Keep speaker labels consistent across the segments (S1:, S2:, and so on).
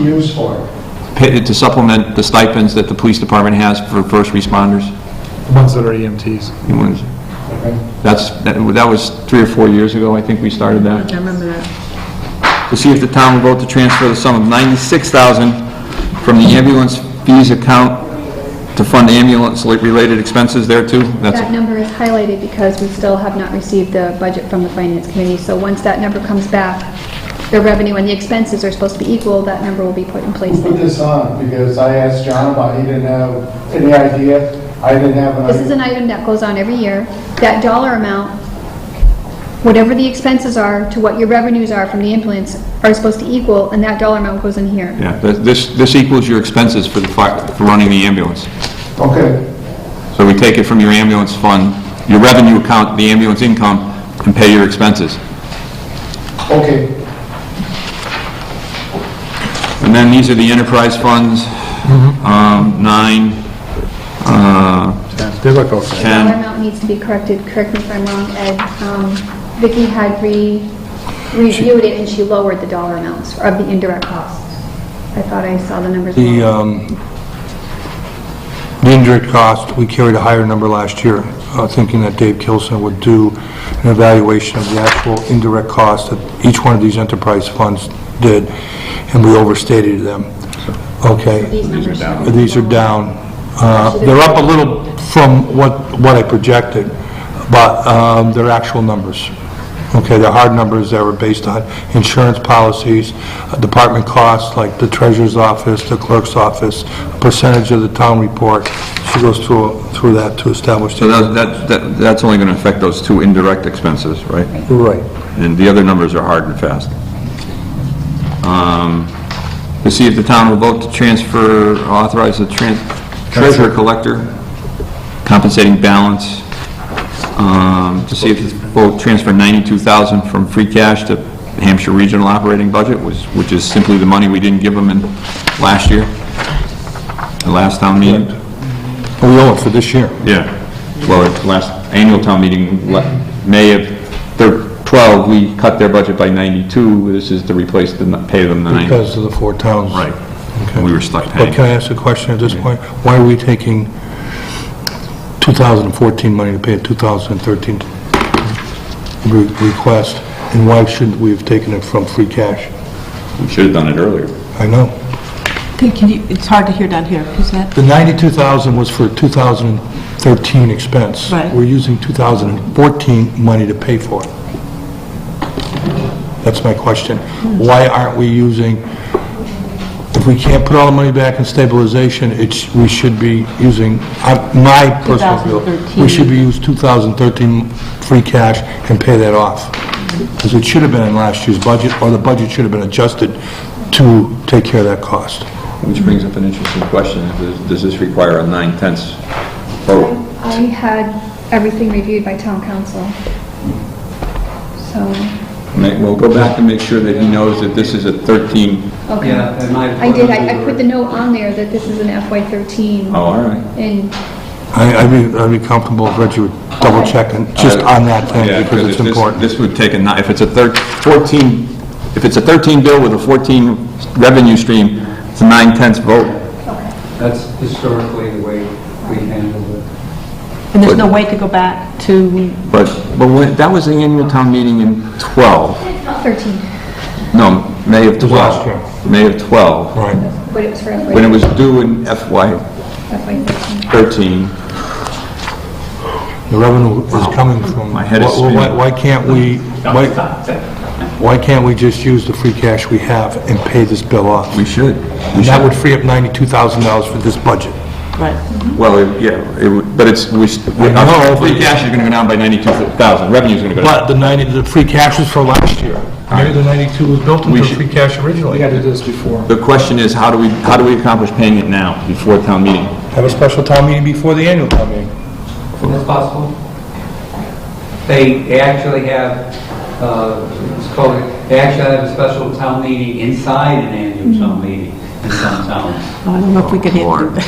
S1: used for it.
S2: Pay- to supplement the stipends that the police department has for first responders?
S3: The ones that are E EMTs.
S2: You want to-
S1: okay?
S2: That's, that that was three or four years ago, I think we started that.
S4: I remember that.
S2: to see if the town will vote to transfer the sum of ninety-six thousand from the ambulance fees account to fund ambulance-related expenses there too. That's
S5: That number is highlighted because we still have not received the budget from the finance committee, so once that number comes back, the revenue and the expenses are supposed to be equal, that number will be put in place
S1: Who Put
S5: then.
S1: this on, because I asked John about, it. he didn't have any idea, I didn't have an
S5: This is
S1: idea.
S5: an item that goes on every year. That dollar amount, whatever the expenses are to what your revenues are from the ambulance, are supposed to equal, and that dollar amount goes in here.
S2: Yeah, th- this, this equals your expenses for the fire, for running the ambulance.
S1: Okay,
S2: So we take it from your ambulance fund, your revenue account, the ambulance income, and pay your expenses.
S1: okay,
S2: And then these are the enterprise funds,
S3: Mm-hmm.
S2: um, nine, uh,
S3: They're like all set.
S5: Dollar
S2: ten.
S5: amount needs to be corrected, correct me if I'm wrong, Ed. Um, Vicki had re, reviewed it and she lowered the dollar amounts of the indirect costs. I thought I saw the numbers.
S6: The,
S2: uh,
S5: wrong.
S6: um, the indirect cost, we carried a higher number last year, uh, thinking that Dave Kilson would do an evaluation of the actual indirect cost that each one of these enterprise funds did, and we overstated them. Okay?
S5: These numbers.
S6: But These are down. Uh, They're up a little from what, what I projected, but um, they're actual numbers. Okay, they're hard numbers that were based on insurance policies, uh, department costs, like the treasurer's office, the clerk's office, percentage of the town report. She goes through, through that to establish.
S2: So that, that, that that's only gonna affect those two indirect expenses, right?
S6: Right.
S2: And the other numbers are hard and fast. Um, To see if the town will vote to transfer, authorize the tran- treasurer collector compensating balance. Um, To see if the vote transfer 92,000 from free cash to Hampshire Regional Operating Budget, which which is simply the money we didn't give them in last year, the last town meeting.
S6: We owe it for this year.
S2: Yeah, well, at last annual town meeting, le- May of thir- 12, we cut their budget by 92, this is to replace, the n- pay them the 90.
S6: Because of the four towns.
S2: Right, and we were stuck
S6: But can
S2: paying.
S6: I ask a question at this point? Why are we taking 2014 money to pay a 2013 re- request, and why shouldn't we have taken it from free cash?
S2: We should have done it earlier.
S6: I know.
S4: Can- Can you, it's hard to hear down here, who's that?
S6: The 92,000 was for 2013 expense.
S4: Right.
S6: We're using 2014 money to pay for it. That's my question. Why aren't we using, if we can't put all the money back in stabilization, it's, we should be using, I- my personal feel, we
S4: 2013.
S6: should be use 2013 free cash and pay that off. Because it should have been in last year's budget, or the budget should have been adjusted to take care of that cost.
S2: Which brings up an interesting question, If there's- does this require a nine-tenths vote?
S5: I had everything reviewed by town council. So,
S2: Ma- We'll go back and make sure that he knows that this is a 13,
S5: okay.
S7: Yeah, and my...
S5: I did, I I put the note on there that this is an FY13,
S2: oh, all right.
S5: and
S6: I- I'd be, I'd be comfortable if Reggie would double check and just on that
S2: Yeah,
S6: thing because
S2: if
S6: it's
S2: this-
S6: important.
S2: This would take a, ni- if it's a thir- 14, if it's a 13 bill with a 14 revenue stream, it's a nine tenths vote.
S7: That's historically the way we handled it.
S4: And there's no way to go back to,
S2: But, but when, that was the annual town meeting in 12,
S5: 13,
S2: no, May of 12.
S6: was last year.
S2: May of 12,
S6: Right.
S5: but it was for
S2: when it
S5: FY13.
S2: was due in FY 13.
S6: The revenue is coming from,
S2: My head is
S6: Why- why-
S2: spinning.
S6: why can't we, why, why can't we just use the free cash we have and pay this bill off?
S2: We should.
S6: And that would free up $92,000 for this budget.
S4: right,
S2: Well, it- yeah, it would, but it's, we, st- we-
S6: I know,
S2: our free
S6: but-
S2: cash is gonna go down by 92,000, revenue's gonna go down.
S6: But the 90, the free cash was for last year. Maybe the 92 was built
S2: We
S6: into
S2: should-
S6: the free cash
S3: We
S6: originally.
S3: got to do this before.
S2: The question is, how do we, how do we accomplish paying it now, before town meeting?
S6: Have a special town meeting before the annual town meeting.
S7: Isn't that possible? They they actually have, uh, it's called, they actually have a special town meeting inside an annual town meeting in some towns.
S4: I don't know if we could handle that.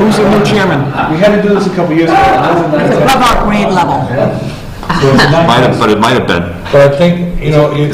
S3: Who's the new chairman? We had to do this a couple years ago.
S4: Above our grade level.
S3: There was a
S2: Might
S3: nine-
S2: have, but it might have been.
S6: But I think, you know, you-